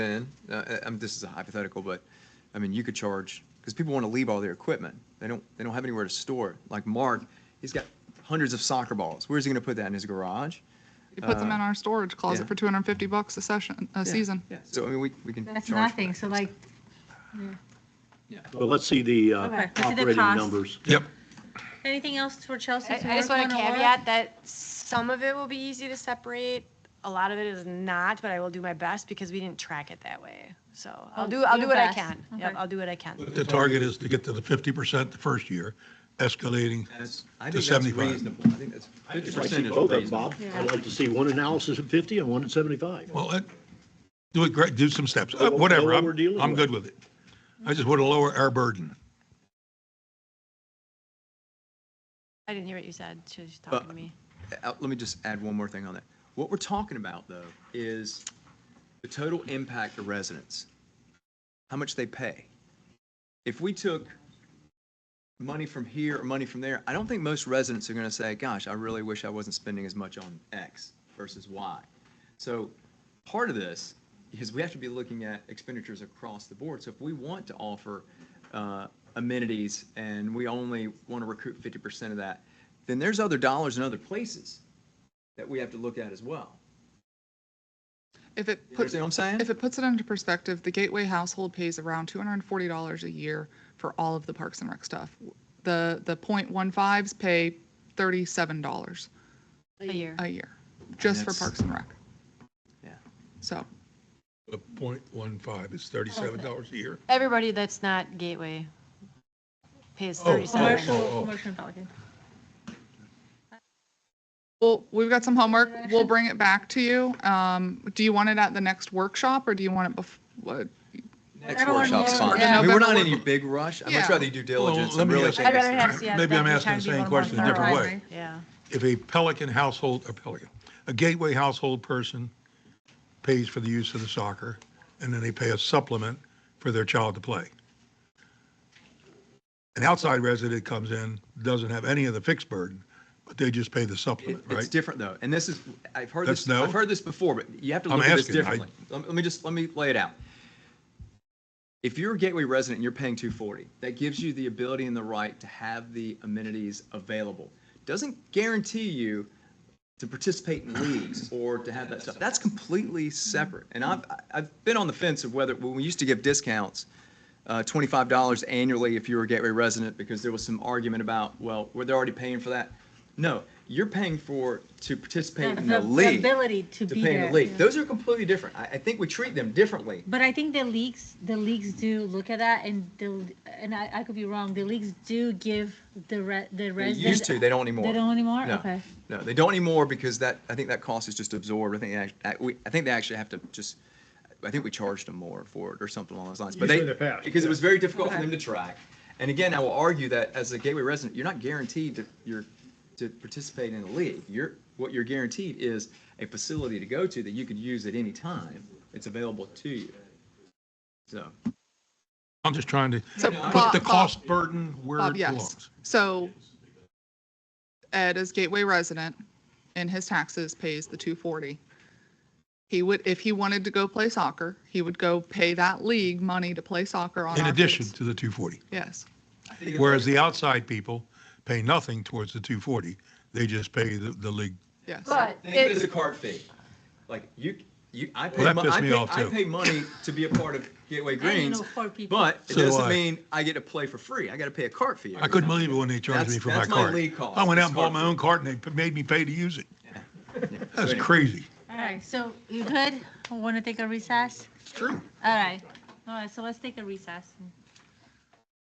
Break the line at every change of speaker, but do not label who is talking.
in, uh, I- I'm, this is a hypothetical, but, I mean, you could charge, because people want to leave all their equipment. They don't, they don't have anywhere to store it. Like Mark, he's got hundreds of soccer balls. Where's he going to put that in his garage?
You put them in our storage closet
yeah.
for 250 bucks a session, a
Yeah,
season.
yeah. So, I mean, we, we can. charge
That's
for
nothing,
that.
so like,
Well, let's see the
Okay.
uh,
Let's see the
operating
cost.
numbers.
Yep.
anything else for Chelsea?
I I just want to caveat that some of it will be easy to separate, a lot of it is not, but I will do my best because we didn't track it that way. So I'll
Oh,
do, I'll
your
do what I
best.
can. Yep,
Okay.
I'll do what I can.
The target is to get to the fifty percent the first year, escalating
That's- I
to
think that's
seventy-five.
reasonable. I think that's fifty
I'd like to
percent
see
is
both of them,
reasonable.
Bob. I'd like to see one analysis at 50 and one at 75.
Well, uh, do it great, do some steps,
Know
Uh,
what-
whatever,
know what we're
I'm,
dealing
I'm
with.
good with it. I just want to lower our burden.
I didn't hear what you said. She was talking to me.
Uh, Let me just add one more thing on that. What we're talking about, though, is the total impact to residents, how much they pay. If we took money from here or money from there, I don't think most residents are going to say, gosh, I really wish I wasn't spending as much on X versus Y. So part of this is we have to be looking at expenditures across the board. So if we want to offer uh, amenities and we only want to recoup 50% of that, then there's other dollars in other places that we have to look at as well.
If it
You
puts,
understand what I'm saying?
if it puts it into perspective, the Gateway household pays around $240 a year for all of the Parks and Rec stuff. The, the .15s pay $37
A year.
a year, just for
That's-
Parks and Rec.
Yeah.
So,
The point one five is thirty-seven dollars a year.
Everybody that's not Gateway pays
Oh.
37.
Oh,
Commercial,
oh.
commercial Pelican.
well, we've got some homework. We'll bring it back to you. Um, do you want it at the next workshop or do you want it bef, what?
Next
Everyone
workshop's
knows.
fine.
Yeah.
I mean, we're not in any big rush. I'm
Yeah.
much rather do diligence.
Well,
I'm
let me
really
ask-
thinking-
I'd rather have Seattle
Maybe I'm
Valley
asking
try
the
to be
same
a little more
question a different
thorough.
way.
Yeah.
if a Pelican household, a Pelican, a Gateway household person pays for the use of the soccer, and then they pay a supplement for their child to play. An outside resident comes in, doesn't have any of the fixed burden, but they just pay the supplement,
It- It's
right?
different though, and this is, I've heard
That's
this,
no?
I've heard this before, but you have to
I'm
look at this
asking, I-
differently. Let let me just, let me lay it out. If you're a Gateway resident and you're paying two forty, that gives you the ability and the right to have the amenities available. Doesn't guarantee you to participate in leagues or to have that stuff. That's completely separate. And I've, I've been on the fence of whether, when we used to give discounts, uh, $25 annually if you were a Gateway resident, because there was some argument about, well, were they already paying for that? No, you're paying for, to participate in the league.
ability to
To
be
pay in the
there.
league. Those are completely different. I, I think we treat them differently.
But I think the leagues, the leagues do look at that and the, and I, I could be wrong, the leagues do give the re, the
They
residents.
used to, they don't anymore.
They don't anymore?
No.
Okay.
No, they don't anymore because that, I think that cost is just absorbed. I think, they act- we- I think they actually have to just, I think we charged them more for it or something along those lines. But
Usually
they,
in the past,
because it
yeah.
was very difficult for them to track. And again, I will argue that as a Gateway resident, you're not guaranteed to, you're, to participate in the league. You're, what you're guaranteed is a facility to go to that you could use at any time. It's available to you. So,
I'm just trying to
So
put
Bob-
the
Bob-
cost burden where
Bob,
it
Um, yes.
belongs.
So Ed is Gateway resident and his taxes pays the two forty. He would, if he wanted to go play soccer, he would go pay that league money to play soccer on
In
our
addition
fields.
to the 240,
Yes.
whereas the outside people pay nothing towards the 240, they just pay the, the league.
Yes.
But
Think of it as
it,
a card fee. Like you, you, I pay,
that
mon-
pissed
I
me
pay,
off,
I
too.
pay money to be a part of Gateway Greens,
know four people.
but it
So do
doesn't
I.
mean I get to play for free. I got to pay a cart fee.
I
every
couldn't
time.
believe it when they charged me
That's-
for my
that's my
card.
league cost.
I went
It's
out and bought
hard
my
for-
own card and they p- made me pay to use it.
So
That's
anyway.
crazy.
All right, so you good? Want to take a recess?
True.
All right. All right, so let's take a recess.